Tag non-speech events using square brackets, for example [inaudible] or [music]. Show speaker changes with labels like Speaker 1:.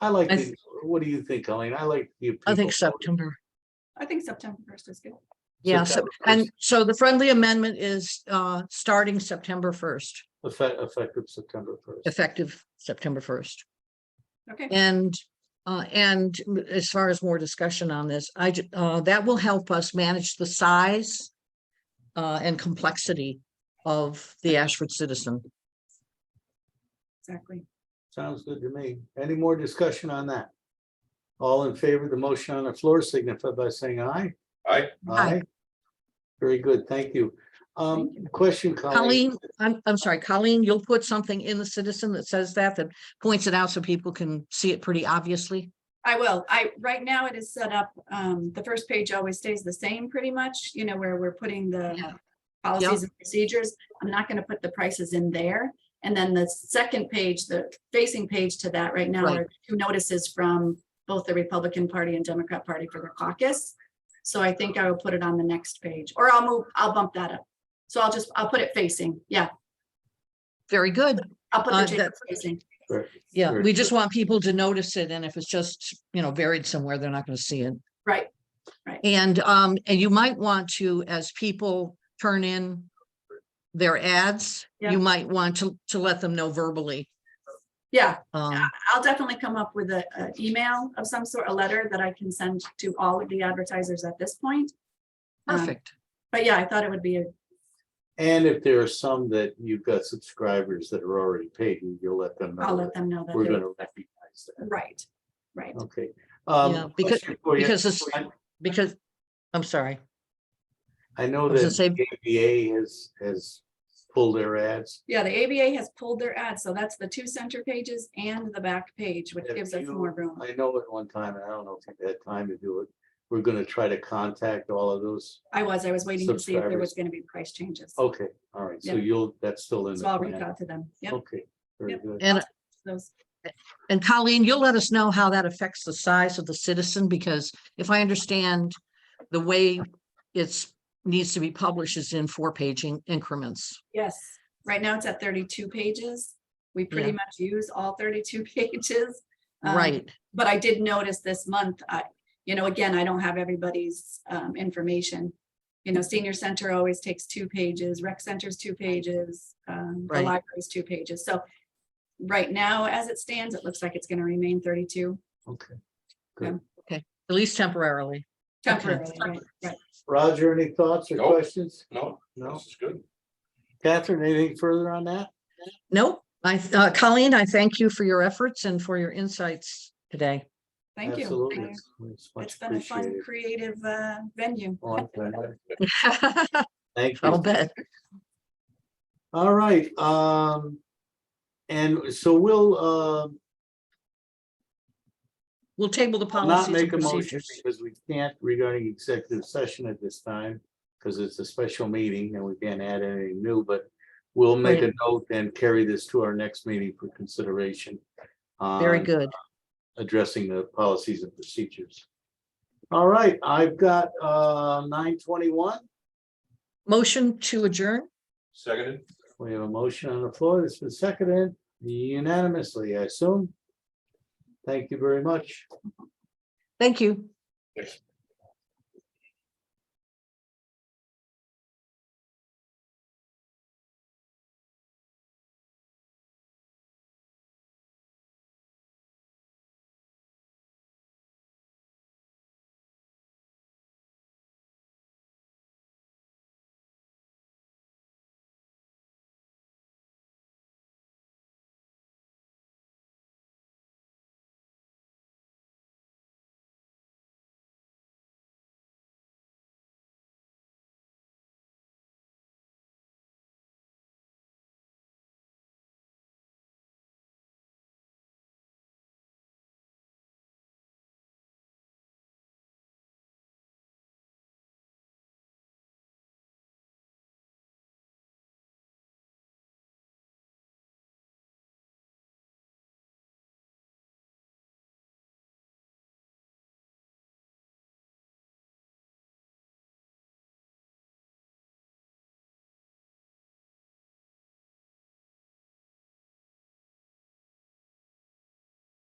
Speaker 1: I like,
Speaker 2: I th-
Speaker 1: the- what do you think, Colleen? I like the.
Speaker 2: I think
Speaker 1: people-
Speaker 2: September.
Speaker 3: I think September first is good.
Speaker 2: Yeah, so,
Speaker 1: September
Speaker 2: and
Speaker 1: first.
Speaker 2: so the friendly amendment is uh starting September first,
Speaker 1: Effect, effective September first.
Speaker 2: effective September first.
Speaker 3: Okay,
Speaker 2: And uh and as far as more discussion on this, I ju- uh that will help us manage the size uh and complexity of the Ashford Citizen.
Speaker 3: exactly.
Speaker 1: Sounds good to me. Any more discussion on that? All in favor of the motion on the floor signify by saying aye.
Speaker 4: Aye.
Speaker 2: Aye.
Speaker 1: Very good, thank you. Um, question, Colleen.
Speaker 2: Colleen, I'm I'm sorry, Colleen, you'll put something in the Citizen that says that, that points it out so people can see it pretty obviously.
Speaker 3: I will. I, right now it is set up, um, the first page always stays the same pretty much, you know, where we're putting
Speaker 2: Yeah.
Speaker 3: the policies and procedures. I'm not gonna put the prices in there. And then the second page, the facing page to that right now
Speaker 2: Right.
Speaker 3: are two notices from both the Republican Party and Democrat Party for the caucus. So I think I will put it on the next page, or I'll move, I'll bump that up. So I'll just, I'll put it facing, yeah,
Speaker 2: Very good.
Speaker 3: I'll put
Speaker 2: Uh,
Speaker 3: the change
Speaker 2: that-
Speaker 3: facing.
Speaker 2: Yeah,
Speaker 1: Very
Speaker 2: we just want people to notice it, and if it's just, you know, buried somewhere, they're not gonna see it.
Speaker 3: Right.
Speaker 2: And, um, and you might want to, as people turn in their ads,
Speaker 3: Yeah.
Speaker 2: you might want to, to let them know verbally.
Speaker 3: Yeah,
Speaker 2: Um,
Speaker 3: I'll definitely come up with a, a email of some sort, a letter that I can send to all of the advertisers at this point. Um,
Speaker 2: perfect.
Speaker 3: But yeah, I thought it would be, a
Speaker 1: And if there are some that you've got subscribers that are already paid, you- you'll let them know.
Speaker 3: I'll
Speaker 1: that
Speaker 3: let them know that.
Speaker 1: We're
Speaker 3: they're-
Speaker 1: gonna Oh. recognize that.
Speaker 3: Right, right.
Speaker 1: Okay.
Speaker 2: Yeah,
Speaker 1: Um,
Speaker 2: because-
Speaker 1: question for you.
Speaker 2: because it's-
Speaker 1: I-
Speaker 2: Because, I'm sorry,
Speaker 1: I know
Speaker 2: I was
Speaker 1: that
Speaker 2: gonna say-
Speaker 1: the ABA has, has pulled their ads.
Speaker 3: Yeah, the ABA has pulled their ads, so that's the two center pages and the back page, which
Speaker 1: If
Speaker 3: gives us
Speaker 1: you-
Speaker 3: more room.
Speaker 1: I know at one time, and I don't know if you had time to do it, we're gonna try to contact all of those.
Speaker 3: I was, I was waiting to see if there
Speaker 1: subscribers. Oh,
Speaker 3: was gonna be price changes. So
Speaker 1: Okay, all right, so
Speaker 3: Yeah.
Speaker 1: you'll, that's still in. the
Speaker 3: I'll reach
Speaker 1: plan.
Speaker 3: out to them. Yep,
Speaker 1: Okay, very
Speaker 3: Yep.
Speaker 1: good.
Speaker 2: and,
Speaker 3: those,
Speaker 2: and Colleen, you'll let us know how that affects the size of the citizen, because if I understand the way it's, needs to be published is in four paging increments.
Speaker 3: yes. Right now it's at thirty-two pages. We pretty
Speaker 2: Yeah.
Speaker 3: much use all thirty-two [laughs] pages. Um,
Speaker 2: Right,
Speaker 3: but I did notice this month, I, you know, again, I don't have everybody's um, information. You know, senior center always takes two pages, rec center's two pages, um, the
Speaker 2: Right.
Speaker 3: library's two pages, so. Right now, as it stands, it looks like it's gonna remain thirty-two
Speaker 1: Okay.
Speaker 2: at least temporarily. Okay.
Speaker 3: temporarily, right, right.
Speaker 1: Roger, any thoughts or
Speaker 4: Nope.
Speaker 1: questions?
Speaker 4: No,
Speaker 1: No.
Speaker 4: this is good.
Speaker 1: Catherine, anything further on that?
Speaker 2: Nope, I, th- uh, Colleen, I thank you for your efforts and for your insights today. [laughs]
Speaker 3: Thank you.
Speaker 1: Absolutely.
Speaker 3: Thank you.
Speaker 1: It's- it's much
Speaker 3: It's been a fun,
Speaker 1: appreciated.
Speaker 3: creative uh, venue.
Speaker 1: On time.
Speaker 2: I'll
Speaker 1: Thank you.
Speaker 2: bet.
Speaker 1: All right, um, and so we'll, um,
Speaker 2: We'll table the
Speaker 1: I'll Not
Speaker 2: policies and
Speaker 1: make a motion
Speaker 2: procedures.
Speaker 1: because we can't regarding executive session at this time, because it's a special meeting and we can't add anything new, but we'll make a note and carry this to our next meeting for consideration.
Speaker 2: Very
Speaker 1: on
Speaker 2: good.
Speaker 1: Addressing the policies and procedures. All right, I've got uh nine twenty-one.
Speaker 2: Motion to adjourn?
Speaker 4: Seconded?
Speaker 1: We have a motion on the floor that's been seconded unanimously, I assume. Thank you very much.
Speaker 2: Thank you.
Speaker 4: Yes.